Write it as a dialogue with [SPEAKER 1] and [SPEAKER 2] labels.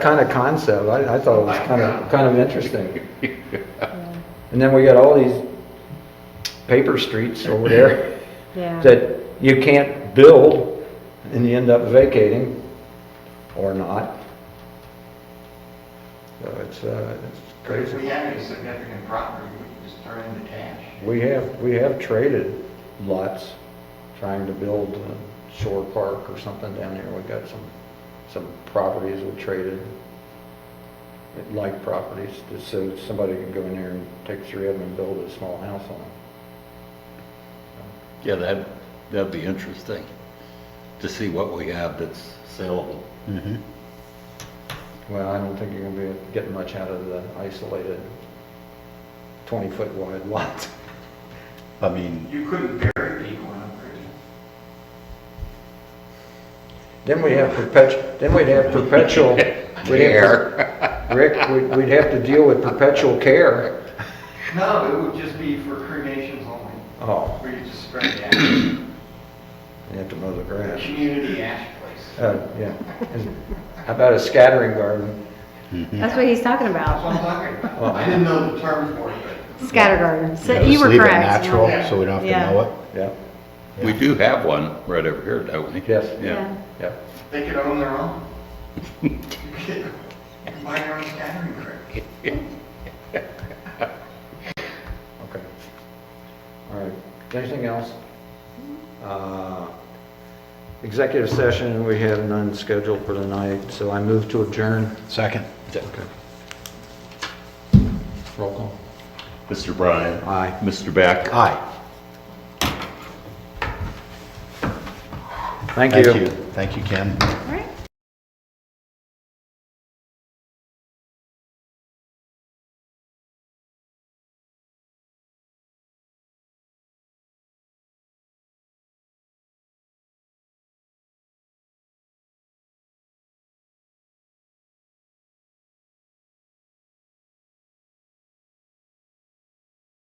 [SPEAKER 1] kind of concept, I, I thought it was kind of, kind of interesting. And then we got all these paper streets over there
[SPEAKER 2] Yeah,
[SPEAKER 1] that you can't build and you end up vacating or not. So it's, uh, it's
[SPEAKER 3] But if we
[SPEAKER 1] crazy.
[SPEAKER 3] have any significant property, we can just turn into cash.
[SPEAKER 1] We have, we have traded lots, trying to build a shore park or something down here. We got some, some properties we traded, like properties, just so somebody can go in there and take three of them and build a small house on them.
[SPEAKER 4] Yeah, that, that'd be interesting, to see what we have that's saleable.
[SPEAKER 1] Well, I don't think you're gonna be getting much out of the isolated twenty-foot wide lots.
[SPEAKER 4] I mean,
[SPEAKER 3] You couldn't bury people in a prison.
[SPEAKER 1] Then we'd have perpetual, then we'd have perpetual. we'd have to- Rick, we'd, we'd have to deal with perpetual care.
[SPEAKER 3] No, it would just be for cremations only,
[SPEAKER 1] Oh,
[SPEAKER 3] where you just spread the ash,
[SPEAKER 1] you have to mow the
[SPEAKER 3] a
[SPEAKER 1] grass.
[SPEAKER 3] community ash place.
[SPEAKER 1] Uh, yeah. And How about a scattering garden?
[SPEAKER 2] that's what he's talking
[SPEAKER 3] That's what I'm
[SPEAKER 2] about.
[SPEAKER 3] talking about. I didn't know the term for it, but
[SPEAKER 2] Scatter garden. So
[SPEAKER 5] Yeah,
[SPEAKER 2] you
[SPEAKER 5] just
[SPEAKER 2] were
[SPEAKER 5] leave it
[SPEAKER 2] correct.
[SPEAKER 5] natural,
[SPEAKER 2] yeah.
[SPEAKER 5] so we don't have
[SPEAKER 2] Yeah.
[SPEAKER 5] to know it.
[SPEAKER 1] Yep,
[SPEAKER 4] we do have one right over here, don't we?
[SPEAKER 1] Yes.
[SPEAKER 4] Yeah.
[SPEAKER 1] yep.
[SPEAKER 3] they could own their own. You could Buy your own scattering grid.
[SPEAKER 1] Okay. All right, anything else? Uh, Executive session, we have none scheduled for tonight, so I move to adjourn.
[SPEAKER 5] Second.
[SPEAKER 1] Okay. Roll call.
[SPEAKER 4] Mr. Bryan.
[SPEAKER 1] Aye.
[SPEAKER 4] Mr. Beck.
[SPEAKER 5] Aye.
[SPEAKER 1] Thank
[SPEAKER 5] Thank
[SPEAKER 1] you.
[SPEAKER 5] you. Thank you, Ken.
[SPEAKER 2] All right.